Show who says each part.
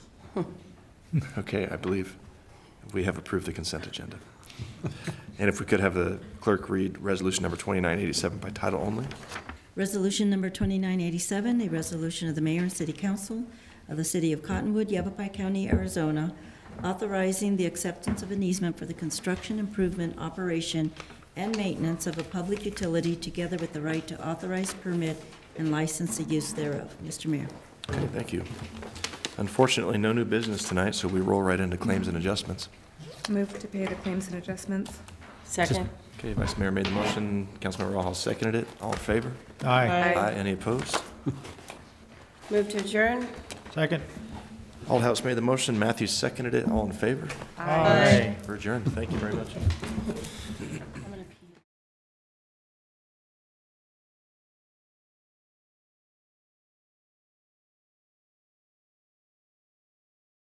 Speaker 1: Okay, I believe we have approved the consent agenda. And if we could have the clerk read Resolution Number 2987 by title only?
Speaker 2: Resolution number 2987, a resolution of the mayor and city council of the city of Cottonwood, Yavapai County, Arizona, authorizing the acceptance of an easement for the construction, improvement, operation, and maintenance of a public utility together with the right to authorize, permit, and license the use thereof. Mr. Mayor.
Speaker 1: Okay, thank you. Unfortunately, no new business tonight, so we roll right into claims and adjustments.
Speaker 3: Move to pay the claims and adjustments.
Speaker 4: Second.
Speaker 1: Okay, Vice Mayor made the motion, Councilmember Rojas seconded it. All in favor?
Speaker 5: Aye.
Speaker 3: Aye.
Speaker 1: Any opposed?
Speaker 4: Move to adjourn?
Speaker 5: Second.
Speaker 1: Aldhouse made the motion, Matthews seconded it. All in favor? We're adjourned. Thank you very much.